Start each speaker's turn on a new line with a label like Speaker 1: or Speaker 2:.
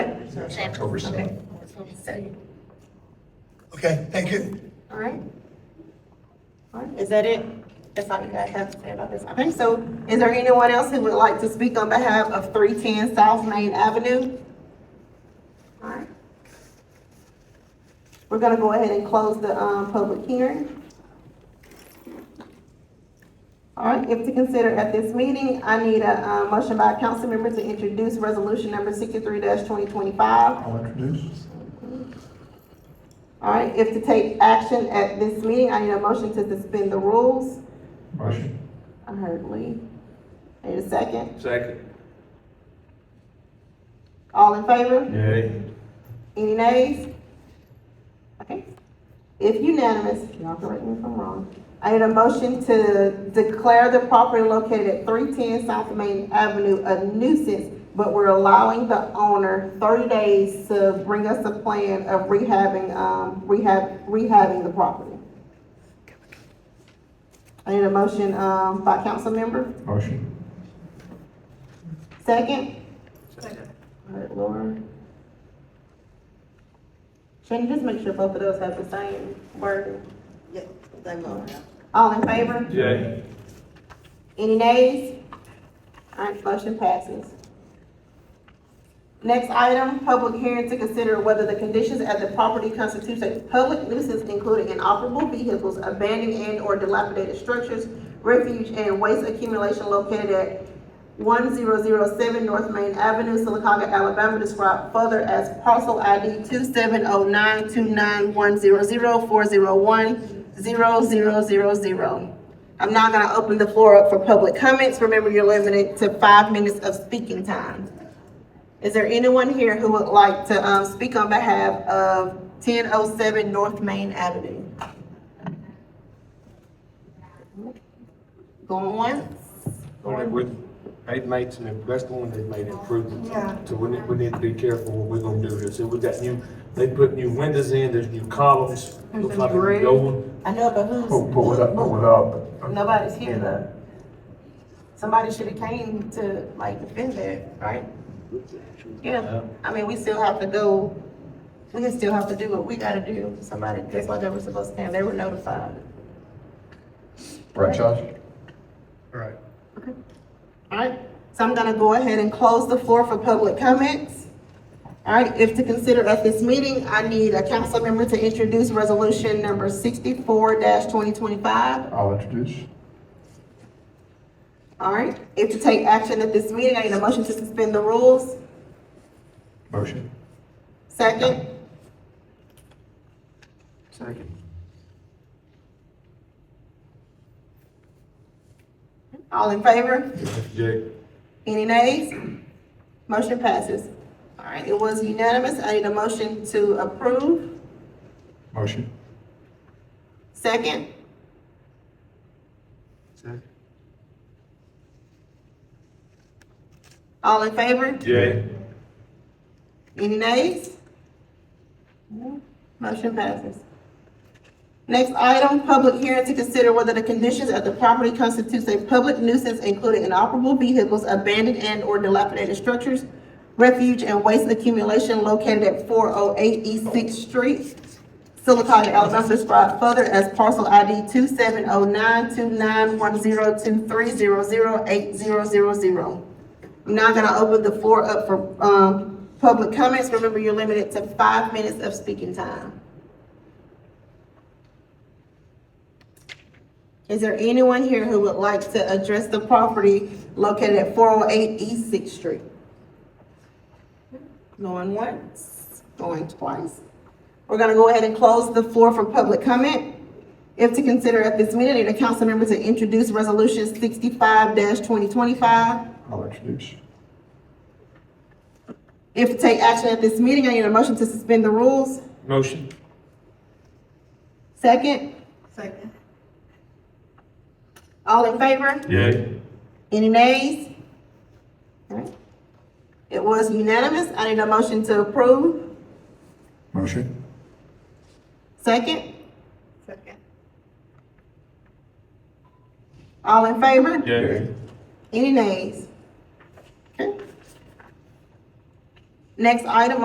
Speaker 1: It's October
Speaker 2: Okay.
Speaker 1: 7th.
Speaker 2: Okay, thank you.
Speaker 3: All right. All right, is that it? That's all you guys have to say about this. Okay, so is there anyone else who would like to speak on behalf of three ten South Main Avenue? All right. We're gonna go ahead and close the, um, public hearing. All right, if to consider at this meeting, I need a, uh, motion by a council member to introduce resolution number sixty-three twenty twenty-five.
Speaker 2: I'll introduce.
Speaker 3: All right, if to take action at this meeting, I need a motion to suspend the rules.
Speaker 2: Motion.
Speaker 3: I heard Lee. Need a second?
Speaker 1: Second.
Speaker 3: All in favor?
Speaker 1: Yay.
Speaker 3: Any nays? Okay. If unanimous, y'all correct me if I'm wrong. I need a motion to declare the property located at three ten South Main Avenue a nuisance, but we're allowing the owner thirty days to bring us a plan of rehabbing, um, rehab, rehabbing the property. I need a motion, um, by council member.
Speaker 2: Motion.
Speaker 3: Second? All right, Laura. Shannon, just make sure both of those have the same wording.
Speaker 4: Yeah, they will.
Speaker 3: All in favor?
Speaker 1: Yay.
Speaker 3: Any nays? All right, motion passes. Next item, public hearing to consider whether the conditions at the property constitutes a public nuisance including inoperable vehicles, abandoned and or dilapidated structures, refuge and waste accumulation located at one zero zero seven North Main Avenue, Silicaca, Alabama, described further as parcel ID two seven oh nine two nine one zero zero four zero one zero zero zero zero. I'm now gonna open the floor up for public comments. Remember, you're limited to five minutes of speaking time. Is there anyone here who would like to, um, speak on behalf of ten oh seven North Main Avenue? Going once?
Speaker 5: Only with, they've made some, that's the one they've made improvements. So we need, we need to be careful what we're gonna do here. So we got new, they put new windows in, there's new columns. Looks like it's gold.
Speaker 3: I know, but
Speaker 2: Pull,
Speaker 3: who's?
Speaker 2: pull it up, pull it up.
Speaker 3: Nobody's here though. Somebody should've came to like defend that, right? Yeah, I mean, we still have to go, we can still have to do what we gotta do. Somebody, that's why they were supposed to stand, they were notified.
Speaker 2: Right, Josh?
Speaker 5: Right.
Speaker 3: Alright, so I'm gonna go ahead and close the floor for public comments. Alright, if to consider at this meeting, I need a council member to introduce resolution number sixty-four twenty twenty-five.
Speaker 2: I'll introduce.
Speaker 3: Alright, if to take action at this meeting, I need a motion to suspend the rules.
Speaker 2: Motion.
Speaker 3: Second,
Speaker 5: Second.
Speaker 3: all in favor?
Speaker 5: Jay,
Speaker 3: Any nays? Motion passes. Alright, it was unanimous. I need a motion to approve.
Speaker 2: Motion.
Speaker 3: Second,
Speaker 5: second.
Speaker 3: all in favor?
Speaker 1: Yay.
Speaker 3: Any nays? Motion passes. Next item, public hearing to consider whether the conditions of the property constitutes a public nuisance including inoperable vehicles, abandoned and/or dilapidated structures, refuge and waste accumulation located at four oh eight East Sixth Street, Silicon, Alabama, described further as parcel ID two seven oh nine two nine one zero two three zero zero eight zero zero zero. I'm now gonna open the floor up for, um, public comments. Remember, you're limited to five minutes of speaking time. Is there anyone here who would like to address the property located at four oh eight East Sixth Street? Going once, going twice. We're gonna go ahead and close the floor for public comment. If to consider at this meeting, the council member to introduce resolution sixty-five twenty twenty-five.
Speaker 2: I'll introduce.
Speaker 3: If to take action at this meeting, I need a motion to suspend the rules.
Speaker 5: Motion.
Speaker 3: Second,
Speaker 4: Second.
Speaker 3: all in favor?
Speaker 1: Yay.
Speaker 3: Any nays? All right. It was unanimous. I need a motion to approve.
Speaker 2: Motion.
Speaker 3: Second,
Speaker 4: Second.
Speaker 3: all in favor?
Speaker 1: Yay.
Speaker 3: Any nays? Okay. Next item